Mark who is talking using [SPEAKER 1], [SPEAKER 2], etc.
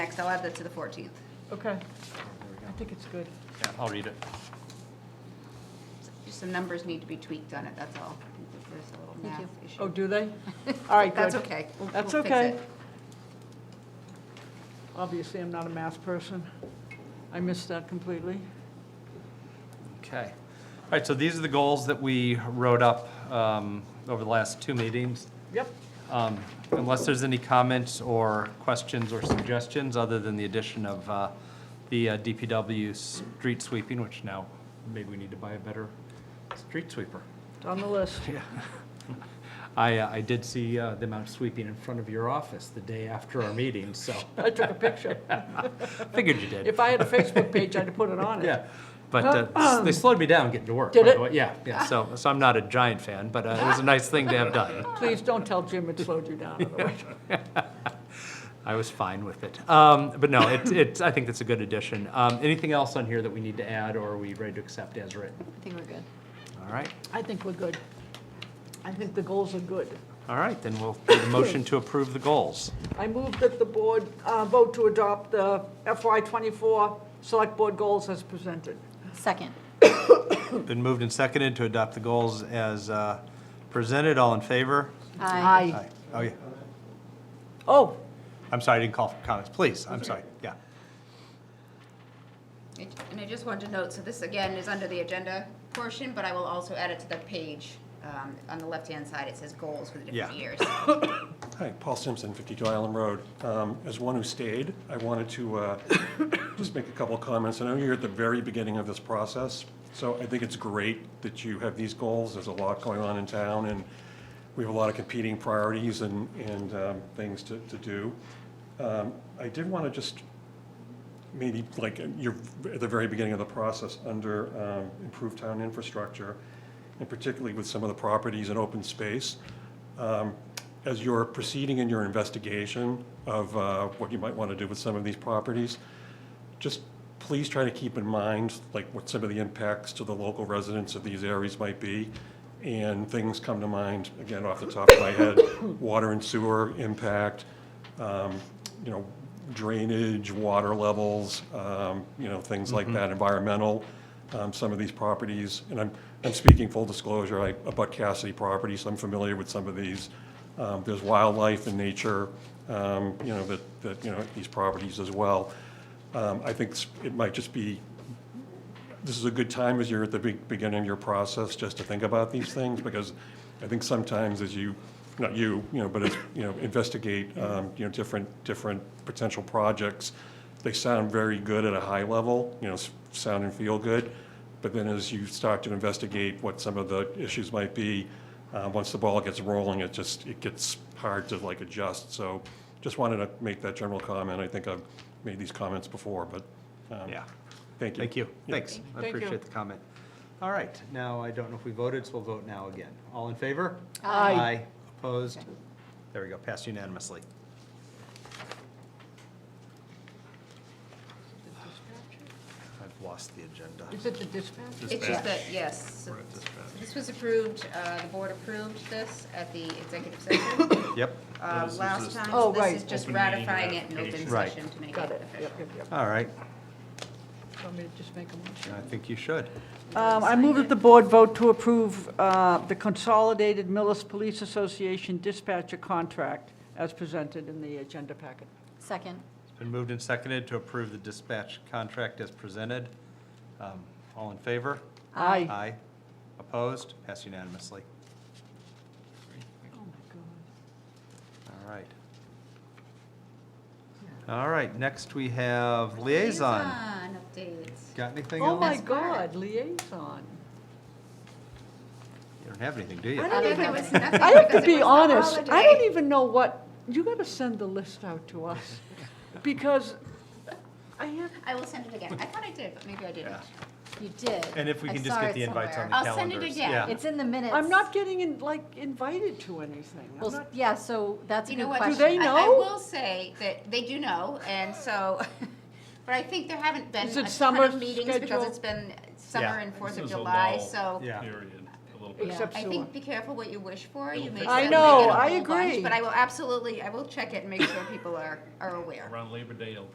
[SPEAKER 1] Next, I'll add that to the 14th.
[SPEAKER 2] Okay. I think it's good.
[SPEAKER 3] Yeah, I'll read it.
[SPEAKER 1] Just some numbers need to be tweaked on it, that's all. There's a little math
[SPEAKER 2] Oh,
[SPEAKER 1] issue.
[SPEAKER 2] do they? All right,
[SPEAKER 1] That's
[SPEAKER 2] good.
[SPEAKER 1] okay. We'll-
[SPEAKER 2] That's
[SPEAKER 1] we'll fix
[SPEAKER 2] okay.
[SPEAKER 1] it.
[SPEAKER 2] Obviously, I'm not a math person. I missed that completely.
[SPEAKER 3] Okay. All right, so these are the goals that we wrote up um, over the last two meetings.
[SPEAKER 2] Yep.
[SPEAKER 3] Um, Unless there's any comments or questions or suggestions, other than the addition of uh, the uh, DPW street sweeping, which now maybe we need to buy a better street sweeper.
[SPEAKER 2] It's on the list.
[SPEAKER 3] I, uh, I did see uh, the amount sweeping in front of your office the day after our meeting, so
[SPEAKER 2] I took a picture.
[SPEAKER 3] figured you did.
[SPEAKER 2] If I had a Facebook page, I'd put it on it.
[SPEAKER 3] Yeah, but uh, they slowed me down getting to work.
[SPEAKER 2] Um, Did
[SPEAKER 3] by
[SPEAKER 2] it?
[SPEAKER 3] the way. Yeah, yeah, so, so I'm not a giant fan, but uh, it was a nice thing to have done.
[SPEAKER 2] Please don't tell Jim it slowed you down. otherwise-
[SPEAKER 3] I was fine with it. Um, But no, it's, it's, I think that's a good addition. Um, Anything else on here that we need to add, or are we ready to accept as written?
[SPEAKER 1] I think we're good.
[SPEAKER 3] All right,
[SPEAKER 2] I think we're good. I think the goals are good.
[SPEAKER 3] all right, then we'll do the motion to approve the goals.
[SPEAKER 2] I move that the board uh, vote to adopt the FY '24 Select Board goals as presented.
[SPEAKER 4] Second.
[SPEAKER 3] Been moved and seconded to adopt the goals as uh, presented. All in favor?
[SPEAKER 4] Aye.
[SPEAKER 3] Aye. Oh, yeah.
[SPEAKER 2] Oh,
[SPEAKER 3] I'm sorry, I didn't call for comments. Please, I'm sorry. Yeah.
[SPEAKER 1] And- And I just wanted to note, so this again is under the agenda portion, but I will also add it to the page. Um, On the left-hand side, it says goals for the different
[SPEAKER 3] Yeah.
[SPEAKER 1] years.
[SPEAKER 5] Hi, Paul Simpson, 52 Island Road. Um, As one who stayed, I wanted to uh, just make a couple of comments. I know you're at the very beginning of this process, so I think it's great that you have these goals. There's a lot going on in town, and we have a lot of competing priorities and, and um, things to, to do. Um, I did want to just maybe like you're at the very beginning of the process under um, improved town infrastructure, and particularly with some of the properties in open space. Um, As you're proceeding in your investigation of uh, what you might want to do with some of these properties, just please try to keep in mind, like, what some of the impacts to the local residents of these areas might be. And things come to mind, again, off the top of my head, water and sewer impact, um, you know, drainage, water levels, um, you know, things like that, environmental, um, some of these properties. And I'm, I'm speaking full disclosure, I about Cassidy property, so I'm familiar with some of these. Um, There's wildlife and nature, um, you know, that, that, you know, these properties as well. Um, I think s- it might just be, this is a good time as you're at the be- beginning of your process, just to think about these things, because I think sometimes as you, not you, you know, but as, you know, investigate, um, you know, different, different potential projects, they sound very good at a high level, you know, s- sound and feel good, but then as you start to investigate what some of the issues might be, uh, once the ball gets rolling, it just, it gets hard to like adjust. So just wanted to make that general comment. I think I've made these comments before, but. um,
[SPEAKER 3] Yeah.
[SPEAKER 5] Thank you.
[SPEAKER 3] Thank you. Thanks. I
[SPEAKER 2] Thank you.
[SPEAKER 3] appreciate the comment. All right, now, I don't know if we voted, so we'll vote now again. All in favor?
[SPEAKER 2] Aye.
[SPEAKER 3] Opposed? There we go, passed unanimously. I've lost the agenda.
[SPEAKER 2] is it the dispatch?
[SPEAKER 1] It's just that, yes. so- so This was approved, uh, the board approved this at the executive session.
[SPEAKER 3] Yep.
[SPEAKER 1] Uh,
[SPEAKER 6] This is
[SPEAKER 1] Last
[SPEAKER 6] just
[SPEAKER 1] time, so
[SPEAKER 2] Oh,
[SPEAKER 1] this is
[SPEAKER 2] right.
[SPEAKER 1] just
[SPEAKER 6] Open meeting
[SPEAKER 1] ratifying it in open
[SPEAKER 6] ratification.
[SPEAKER 3] Right.
[SPEAKER 1] session to make
[SPEAKER 2] Got
[SPEAKER 1] it
[SPEAKER 2] it. Yep,
[SPEAKER 1] official.
[SPEAKER 2] yep, yep.
[SPEAKER 3] All right,
[SPEAKER 2] Want me to just make a motion?
[SPEAKER 3] I think you should.
[SPEAKER 2] Um, I move that the board vote to approve uh, the Consolidated Millis Police Association dispatcher contract as presented in the agenda packet.
[SPEAKER 4] Second.
[SPEAKER 3] It's been moved and seconded to approve the dispatch contract as presented. Um, All in favor?
[SPEAKER 2] Aye.
[SPEAKER 3] Aye. Opposed? Passed unanimously.
[SPEAKER 2] Oh, my
[SPEAKER 3] All right. All right, next we have liaison.
[SPEAKER 1] Liaison updates.
[SPEAKER 3] Got anything
[SPEAKER 2] God. Oh, my
[SPEAKER 3] else?
[SPEAKER 2] God, liaison.
[SPEAKER 3] You don't have anything, do you?
[SPEAKER 2] I
[SPEAKER 1] Uh,
[SPEAKER 2] don't
[SPEAKER 1] there
[SPEAKER 2] even,
[SPEAKER 1] was nothing
[SPEAKER 2] I have to
[SPEAKER 1] because it was
[SPEAKER 2] be
[SPEAKER 1] the
[SPEAKER 2] honest, I don't
[SPEAKER 1] holiday.
[SPEAKER 2] even know what, you got to send the list out to us, because I have,
[SPEAKER 1] I will send it again. I thought I did, but maybe I didn't.
[SPEAKER 3] Yeah.
[SPEAKER 4] You did.
[SPEAKER 3] And if we
[SPEAKER 4] I
[SPEAKER 3] can just
[SPEAKER 4] saw
[SPEAKER 3] get
[SPEAKER 4] it
[SPEAKER 3] the invites on
[SPEAKER 4] somewhere.
[SPEAKER 3] the
[SPEAKER 1] I'll send
[SPEAKER 3] calendars.
[SPEAKER 1] it again.
[SPEAKER 3] yeah.
[SPEAKER 4] It's in the minutes.
[SPEAKER 2] I'm not getting, in- like, invited to anything. I'm
[SPEAKER 4] Well,
[SPEAKER 2] not-
[SPEAKER 4] s- yeah, so that's a
[SPEAKER 1] You
[SPEAKER 4] good
[SPEAKER 1] know what?
[SPEAKER 4] question.
[SPEAKER 2] Do they
[SPEAKER 1] I- I
[SPEAKER 2] know?
[SPEAKER 1] will say that they do know, and so, but I think there haven't been
[SPEAKER 2] Is
[SPEAKER 1] a
[SPEAKER 2] it
[SPEAKER 1] ton
[SPEAKER 2] summer
[SPEAKER 1] of meetings because
[SPEAKER 2] schedule?
[SPEAKER 1] it's been
[SPEAKER 3] Yeah.
[SPEAKER 1] summer and Fourth
[SPEAKER 6] This
[SPEAKER 1] of
[SPEAKER 6] was a
[SPEAKER 1] July,
[SPEAKER 6] lull
[SPEAKER 1] so
[SPEAKER 3] Yeah.
[SPEAKER 6] Period, a little bit.
[SPEAKER 2] Except
[SPEAKER 1] I
[SPEAKER 2] sewer.
[SPEAKER 1] think be careful what you wish for. You may
[SPEAKER 6] I
[SPEAKER 1] suddenly
[SPEAKER 2] know,
[SPEAKER 1] get a
[SPEAKER 2] I
[SPEAKER 1] whole bunch,
[SPEAKER 2] agree.
[SPEAKER 1] But I will absolutely, I will check it and make sure people are, are aware.
[SPEAKER 6] Around Labor Day, it'll